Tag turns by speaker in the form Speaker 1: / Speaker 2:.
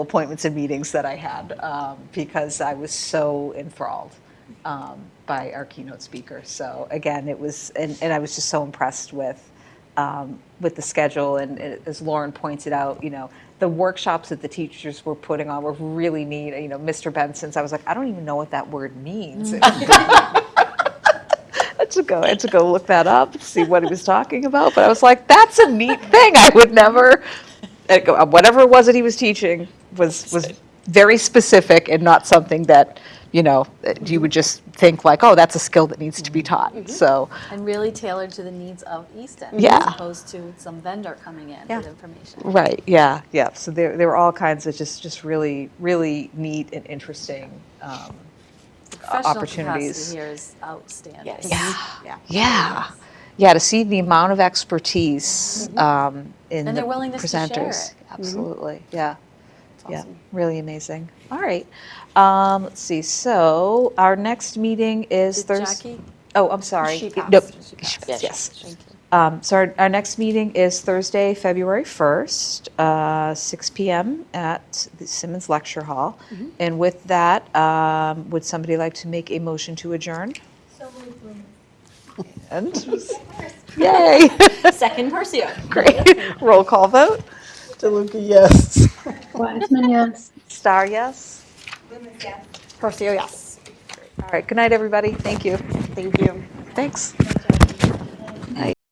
Speaker 1: appointments and meetings that I had um, because I was so enthralled um, by our keynote speaker. So again, it was, and, and I was just so impressed with um, with the schedule. And it- as Lauren pointed out, you know, the workshops that the teachers were putting on were really neat. You know, Mr. Benson's, I was like, I don't even know what that word means. I had to go, I had to go look that up to see what he was talking about. But I was like, that's a neat thing. I would never, and go- uh, whatever it was that he was teaching was, was very specific and not something that, you know, that you would just think like, oh, that's a skill that needs to be taught. So,
Speaker 2: And really tailored to the needs of East End,
Speaker 1: Yeah.
Speaker 2: as opposed to some vendor coming in
Speaker 1: Yeah.
Speaker 2: with information.
Speaker 1: right, yeah, yeah. So there, there were all kinds of just, just really, really neat and interesting. Um,
Speaker 2: Professional
Speaker 1: opportunities.
Speaker 2: capacity here is outstanding.
Speaker 1: yeah. Yeah. Yeah, to see the amount of expertise um, in
Speaker 2: Mm-hmm. And
Speaker 1: the
Speaker 2: their willingness to share
Speaker 1: presenters.
Speaker 2: it. Mm-hmm.
Speaker 1: Absolutely. Yeah. Yeah.
Speaker 2: awesome.
Speaker 1: Really amazing. All right. Um, let's see. So our next meeting is
Speaker 2: Did
Speaker 1: Thursday.
Speaker 2: Jackie?
Speaker 1: Oh, I'm sorry.
Speaker 2: She
Speaker 1: No,
Speaker 2: passed. She
Speaker 1: she
Speaker 2: passed.
Speaker 1: passed, Yes.
Speaker 2: Thank you.
Speaker 1: Um, so our, our next meeting is Thursday, February 1st, uh, 6 p.m. at the Simmons Lecture Hall. And with that, um, would somebody like to make a motion to adjourn? And, yay,
Speaker 2: Second Percio.
Speaker 1: great. Roll call vote.
Speaker 3: DeLuca, yes.
Speaker 4: Wiseman, yes.
Speaker 1: Star, yes.
Speaker 2: Percio, yes.
Speaker 1: All right, good night, everybody. Thank you.
Speaker 3: Thank you.
Speaker 1: Thanks.